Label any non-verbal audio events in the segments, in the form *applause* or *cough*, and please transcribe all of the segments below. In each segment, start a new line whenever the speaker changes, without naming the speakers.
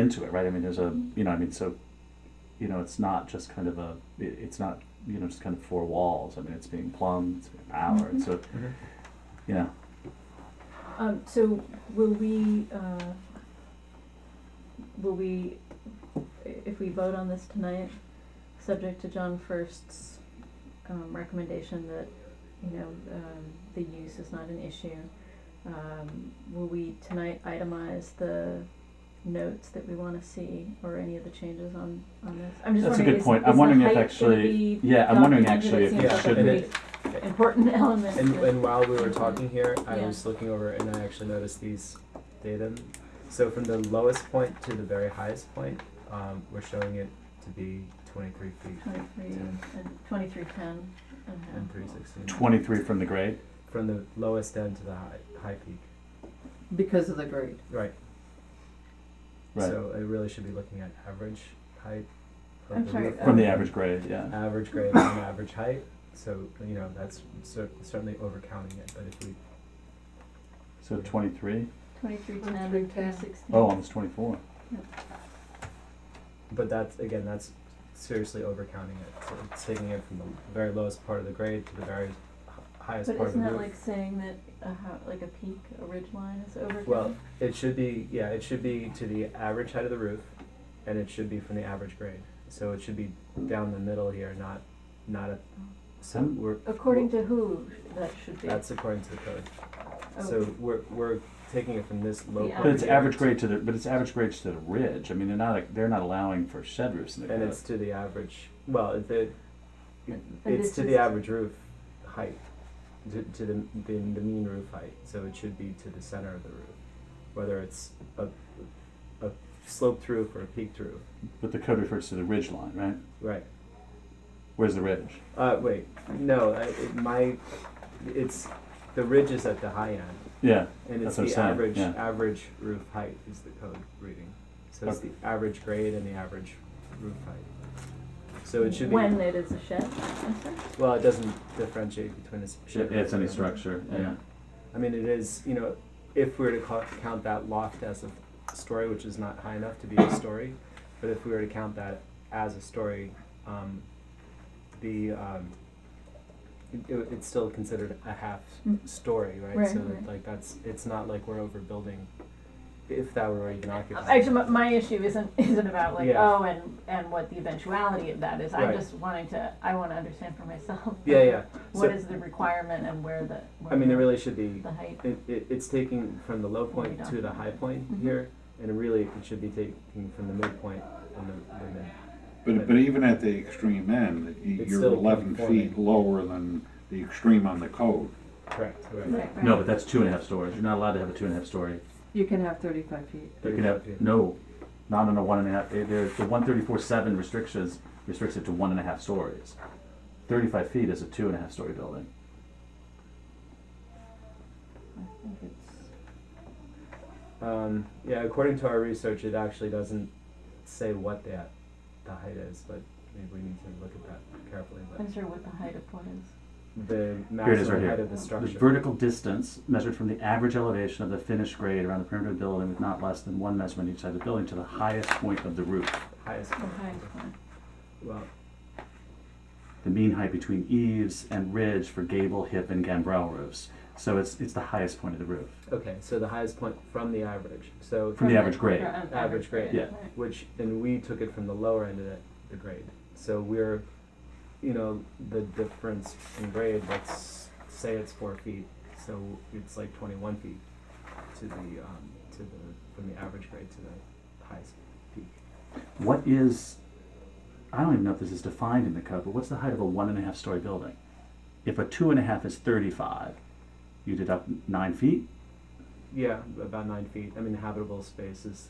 into it, right? I mean, there's a you know, I mean, so you know, it's not just kind of a it, it's not you know just kind of four walls. I mean, it's being plumbed, it's being powered,
Mm-hmm.
so
Mhm.
you know,
Um, so will we, uh, will we, i- if we vote on this tonight, subject to John First's, um, recommendation that, you know, um, the use is not an issue, um, will we tonight itemize the notes that we wanna see or any of the changes on, on this? I'm
That's
just
a
wondering,
good
is-
point.
is
I'm
the
wondering if
height gonna
actually-
be
yeah, I'm wondering actually if
documented? It
it
seems like a
should
be-
pretty Important element.
And,
to-
and while we were talking here, I
Yeah.
was looking over and I actually noticed these datum. So from the lowest point to the very highest point, um, we're showing it to be 23 feet
23 and 2310 and a half.
and 316.
23 from the grade.
From the lowest end to the high, high peak.
because of the grade.
Right.
Right.
So it really should be looking at average height. of
I'm
the
sorry, um,
roof
From the
line,
average grade, yeah.
Average grade and average height. So, you know, that's cer- certainly overcounting it. But if we
So 23.
2310
23,
and 316.
Oh, almost 24.
But that's again, that's seriously overcounting it. So it's taking it from the very lowest part of the grade to the very h- highest
But
part of the
isn't that
roof.
like saying that a ho- like a peak, a ridge line is over?
Well, it should be yeah, it should be to the average height of the roof, and it should be from the average grade. So it should be down the middle here, not not at so
Hmm.
we're
According to who that should be?
that's according to the code.
Oh,
So we're we're taking it from this low
The
point
But it's
here,
average grade to the but it's average grade to the ridge. I mean, they're not they're not allowing for shed roofs in the
and
code.
it's to the average. Well, it, it,
And
it's
it's
to the
just-
average roof height, to, to the, the the mean roof height. So it should be to the center of the roof, whether it's a a sloped roof or a peaked roof.
But the code refers to the ridge line, right?
Right.
Where's the ridge?
Uh, wait. No, I, it, my it's the ridge is at the high end,
Yeah.
and it's
That's what I'm
the
saying,
average
yeah.
average roof height is the code reading. So it's the average grade and the average roof height. So it should be
When it is a shed, I'm sorry?
Well, it doesn't differentiate between a s-
Yeah,
shed.
it's
roof
any
and-
structure. Yeah.
I mean, it is, you know, if we were to ca- count that loft as a story, which is not high enough to be a story, but if we were to count that as a story, um, the, um, it- it, it's still considered a half
Mm.
story, right?
Right,
so that,
right.
like that's, it's not like we're overbuilding, if that were even occupied.
Actually, my, my issue isn't, *laughs* isn't about like,
Yeah.
oh, and, and what the eventuality of that is. I'm
Right.
just wanting to, I wanna understand for myself.
Yeah, yeah.
*laughs* What
So-
is the requirement and where the,
I mean, it
where
really should be
the height?
It, it, it's taking from the low
What we
point to the high
documented.
point
Mm-hmm.
Mhm.
here, and really it should be taking from the midpoint and the, the mid.
But, but even at the extreme end, y-
It's
you're
still
eleven
conforming.
feet lower than the extreme on the code.
Correct. Right.
Right, right.
No, but that's two and a half stories. You're not allowed to have a two and a half story.
You can have thirty-five feet.
You can have no, not on a one and a half. They, they're, the one thirty four seven restrictions restricts it to one and a half stories. Thirty five feet is a two and a half story building.
I think it's
Um, yeah, according to our research, it actually doesn't say what that the height is, but maybe we need to look at that carefully. But
I'm sorry what the height of what is.
the
Here it is
maximum
right here.
height of the
The
structure.
vertical distance measured from the average elevation of the finished grade around the perimeter of the building with not less than one measurement each side of the building to the highest point of the roof.
highest.
The highest one.
Well,
The mean height between eaves and ridge for gable, hip, and gambrel roofs. So it's it's the highest point of the roof.
okay, so the highest point from the average. So
From the average grade.
from the
Average grade.
Yeah.
right.
which and we took it from the lower end of the, the grade. So we're, you know, the difference in grade. Let's say it's four feet, so it's like twenty-one feet to the um, to the from the average grade to the highest peak.
What is I don't even know if this is defined in the code, but what's the height of a one and a half story building? If a two and a half is thirty five, you deduct nine feet.
Yeah, about nine feet. I mean, habitable space is.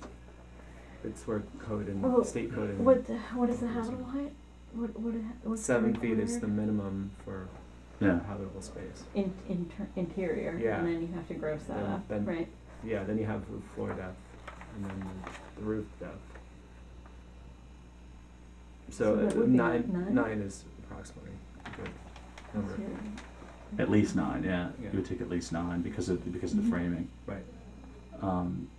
It's where code and
Well,
state code and
What what is the habitable height? What what what's
seven feet is the minimum for
Yeah.
habitable space.
in, inter, interior,
Yeah.
and then you have to gross that
Then-
up,
then-
right?
Yeah, then you have roof floor depth, and then the roof depth.
So
So,
that
uh,
would be
nine,
nine?
nine is approximately a good number.
Interior.
At least nine, yeah.
Yeah.
You would take at least nine because of because of
Mhm.
the framing.
Right.
Um,